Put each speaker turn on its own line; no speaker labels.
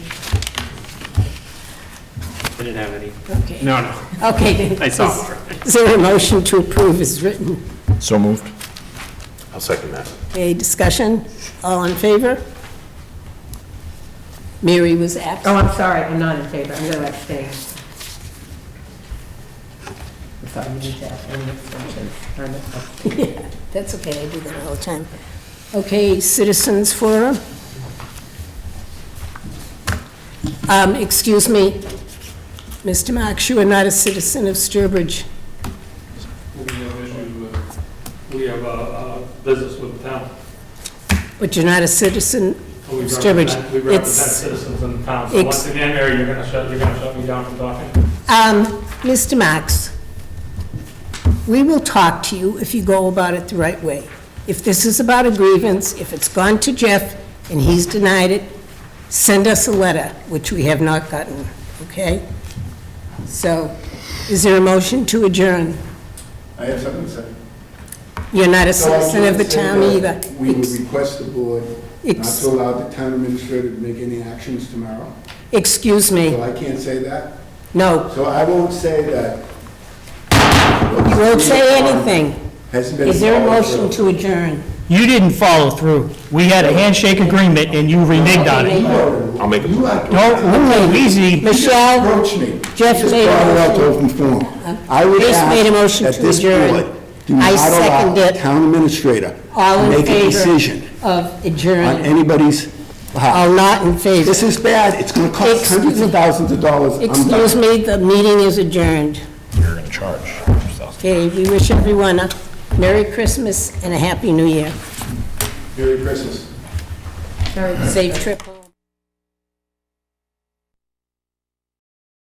I didn't have any.
Okay.
No, no,
Okay.
I saw.
is- Is there a motion to approve as written?
So moved.
I'll second that.
A discussion? All in favor? Mary was absent.
Oh, I'm sorry, I'm not in favor, I'm going to abstain. I'm sorry, you need to abstain, abstentions. I'm abstaining.
Yeah, That's okay, I do that all the time. Okay, citizens forum. Um, excuse me, Mr. Marks, you are not a citizen of Sturbridge.
We have issue, uh, we have a business with the town.
But you're not a citizen,
Oh,
We represent-
Sturbridge,
We represent
it's-
citizens in the town. So
Ex-
once again, Mary, you're gonna shut, you're gonna shut me down from talking?
um, Mr. Marks, we will talk to you if you go about it the right way. If this is about a grievance, if it's gone to Jeff and he's denied it, send us a letter, which we have not gotten, okay? So, is there a motion to adjourn?
I have something to say.
You're not a
So I
citizen of the
should say
town either.
that We would request the board not
Ex-
to allow the town administrator to make any actions tomorrow.
Excuse
So
me,
I can't say that.
no,
So I won't say that.
you won't say anything.
Hasn't been.
Is there a
followed
motion
through.
to adjourn?
You didn't follow through. We had a handshake agreement and you reneged on it.
I'll make a-
You like to.
No, ooh, easy.
Michelle,
Approach me.
Jeff
Just
made a
brought it up to
motion.
open forum. I would
Bruce
ask
made a motion
that
to
this
adjourn.
board do
I
not allow
second it.
Town administrator.
all in
Make a
favor
decision
of
on
adjourn?
anybody's behalf.
All not in favor?
This is bad. It's going to cost
Excuse
hundreds
me.
of thousands of dollars. I'm done.
Excuse me, the meeting is adjourned.
You're going to charge.
Okay, we wish everyone a Merry Christmas and a Happy New Year.
Merry Christmas.
Sorry.
Safe trip home.